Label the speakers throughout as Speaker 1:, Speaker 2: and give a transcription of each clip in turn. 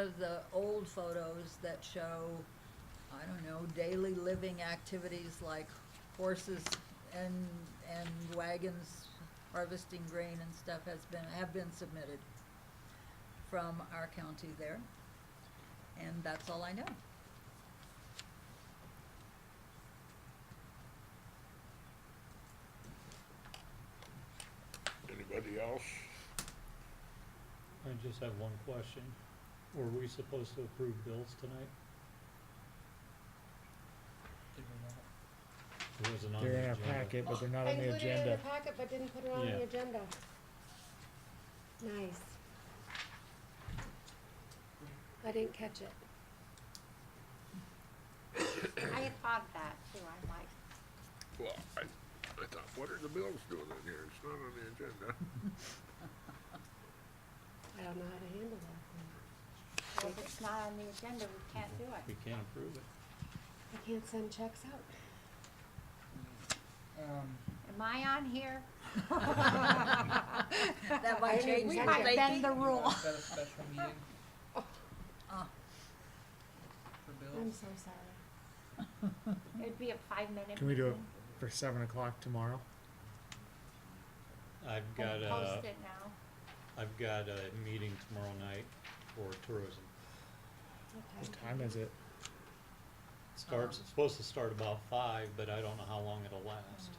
Speaker 1: of the old photos that show, I don't know, daily living activities like horses and, and wagons harvesting grain and stuff has been, have been submitted from our county there. And that's all I know.
Speaker 2: Anybody else?
Speaker 3: I just have one question. Were we supposed to approve bills tonight? It wasn't on
Speaker 4: They're in
Speaker 3: the
Speaker 4: our
Speaker 3: agenda.
Speaker 4: packet, but they're not on the
Speaker 5: I included it in
Speaker 4: agenda.
Speaker 5: the packet, but didn't put it on
Speaker 3: Yeah.
Speaker 5: the agenda. Nice. I didn't catch it.
Speaker 6: I had thought of that too, I'm like,
Speaker 2: Well, I, I thought, what are the bills doing in here? It's not on the agenda.
Speaker 5: I don't know how to handle that.
Speaker 6: well, if it's not on the agenda, we can't do
Speaker 3: We
Speaker 6: it.
Speaker 3: can't approve it.
Speaker 5: I can't send checks out.
Speaker 7: Um,
Speaker 6: Am I on here?
Speaker 1: That
Speaker 5: I
Speaker 1: might
Speaker 5: mean,
Speaker 1: change
Speaker 5: we
Speaker 1: the
Speaker 5: might
Speaker 6: Might bend the
Speaker 1: thinking.
Speaker 6: rule.
Speaker 7: Set a special meeting
Speaker 1: Ah,
Speaker 7: for
Speaker 5: I'm
Speaker 7: bills.
Speaker 5: so sorry.
Speaker 6: It'd be a five-minute.
Speaker 4: Can we do it
Speaker 6: meeting.
Speaker 4: for seven o'clock tomorrow?
Speaker 3: I've
Speaker 6: We'll
Speaker 3: got a,
Speaker 6: Post it now.
Speaker 3: I've got a meeting tomorrow night for tourism.
Speaker 4: What
Speaker 5: Okay.
Speaker 4: time is it?
Speaker 3: Starts, it's supposed to start about five, but I don't know how long it'll last.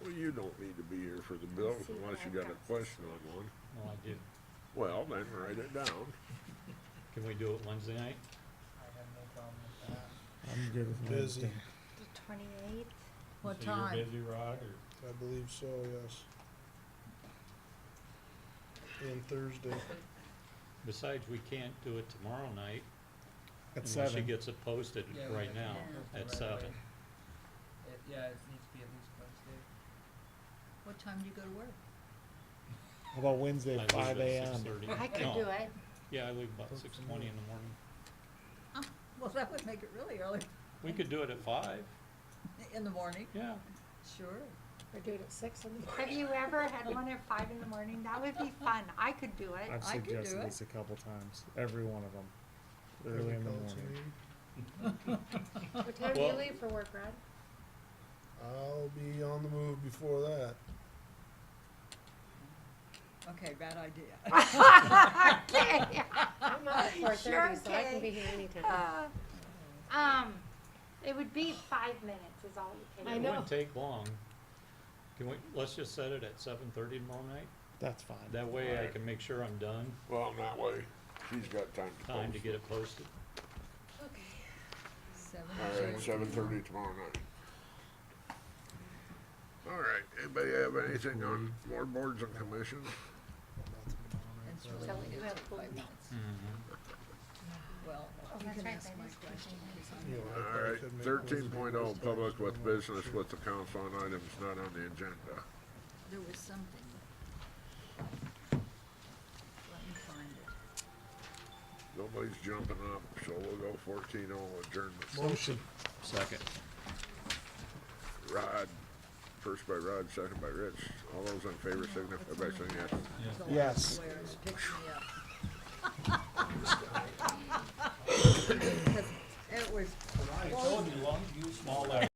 Speaker 2: Well, you don't need to be here for the bills
Speaker 5: see what
Speaker 2: unless you
Speaker 5: I've
Speaker 2: got a
Speaker 5: got.
Speaker 2: question on one.
Speaker 3: Well, I do.
Speaker 2: Well, then write it down.
Speaker 3: Can we do it Wednesday night?
Speaker 7: I have no problem with that.
Speaker 4: I'm good with
Speaker 8: Busy.
Speaker 4: Wednesday.
Speaker 6: The twenty-eighth,
Speaker 1: What
Speaker 3: So you're
Speaker 1: time?
Speaker 3: busy, Rod, or
Speaker 8: I believe so, yes. And Thursday,
Speaker 3: besides, we can't do it tomorrow night
Speaker 4: At
Speaker 3: unless she
Speaker 4: seven.
Speaker 3: gets it posted
Speaker 7: Yeah, we
Speaker 3: right
Speaker 7: have to
Speaker 3: now
Speaker 7: approve it
Speaker 3: at
Speaker 7: right
Speaker 3: seven.
Speaker 7: away. It, yeah, it needs to be at least Wednesday.
Speaker 1: What time do you go to work?
Speaker 4: How about Wednesday,
Speaker 3: I leave
Speaker 4: five
Speaker 3: at
Speaker 4: AM?
Speaker 3: 6:30. No.
Speaker 6: I could do it.
Speaker 3: Yeah, I leave about six twenty in the morning.
Speaker 1: Well, that would make it really early
Speaker 3: We could do it at five,
Speaker 1: in the morning,
Speaker 3: yeah.
Speaker 1: sure.
Speaker 5: Or do it at six in the morning.
Speaker 6: Have you ever had one at five in the morning? That would be fun, I could do it.
Speaker 4: I've
Speaker 1: I could do
Speaker 4: suggested
Speaker 1: it.
Speaker 4: this a couple times, every one of them,
Speaker 8: for
Speaker 4: early
Speaker 8: the
Speaker 4: in the
Speaker 8: council
Speaker 4: morning.
Speaker 8: meeting.
Speaker 5: What time do you
Speaker 3: Well-
Speaker 5: leave for work, Rod?
Speaker 8: I'll be on the move before that.
Speaker 1: Okay, bad idea.
Speaker 6: Okay.
Speaker 5: I'm up at four thirty, so I
Speaker 6: okay.
Speaker 5: can be here anytime.
Speaker 6: Uh, Um, it would be five minutes is all you
Speaker 5: I
Speaker 6: can
Speaker 3: It
Speaker 6: do.
Speaker 5: know.
Speaker 3: wouldn't take long. Can we, let's just set it at seven thirty tomorrow night?
Speaker 4: That's fine.
Speaker 3: That way I can make sure I'm done,
Speaker 2: Well, that way, she's got time to
Speaker 3: time to
Speaker 2: post.
Speaker 3: get it posted.
Speaker 5: Okay.
Speaker 1: Seven
Speaker 2: All right,
Speaker 1: thirty.
Speaker 2: seven thirty tomorrow night. All right, anybody have anything on more boards and commissions?
Speaker 8: Nothing on it.
Speaker 1: It's
Speaker 8: That's-
Speaker 1: really
Speaker 6: So we
Speaker 1: only
Speaker 6: do
Speaker 1: gonna
Speaker 6: have
Speaker 1: take five
Speaker 6: food.
Speaker 1: minutes. Well, you
Speaker 6: that's
Speaker 1: can
Speaker 6: right,
Speaker 1: ask
Speaker 6: that
Speaker 1: my
Speaker 6: is
Speaker 1: question.
Speaker 8: You know, I
Speaker 2: All
Speaker 8: probably
Speaker 2: right,
Speaker 8: could make
Speaker 2: thirteen
Speaker 8: one
Speaker 2: point oh,
Speaker 8: of
Speaker 2: public
Speaker 8: those
Speaker 2: with
Speaker 8: times.
Speaker 2: business with the council on items not on the agenda.
Speaker 1: There was something. Let me find it.
Speaker 2: Nobody's jumping up, so we'll go fourteen oh adjournment.
Speaker 8: Motion.
Speaker 3: Second.
Speaker 2: Rod, first by Rod, second by Rich. All those in favor signify by saying yes.
Speaker 1: It's the
Speaker 4: Yes.
Speaker 1: last square, it picked me up. Because It was
Speaker 3: I told you, long, small letters.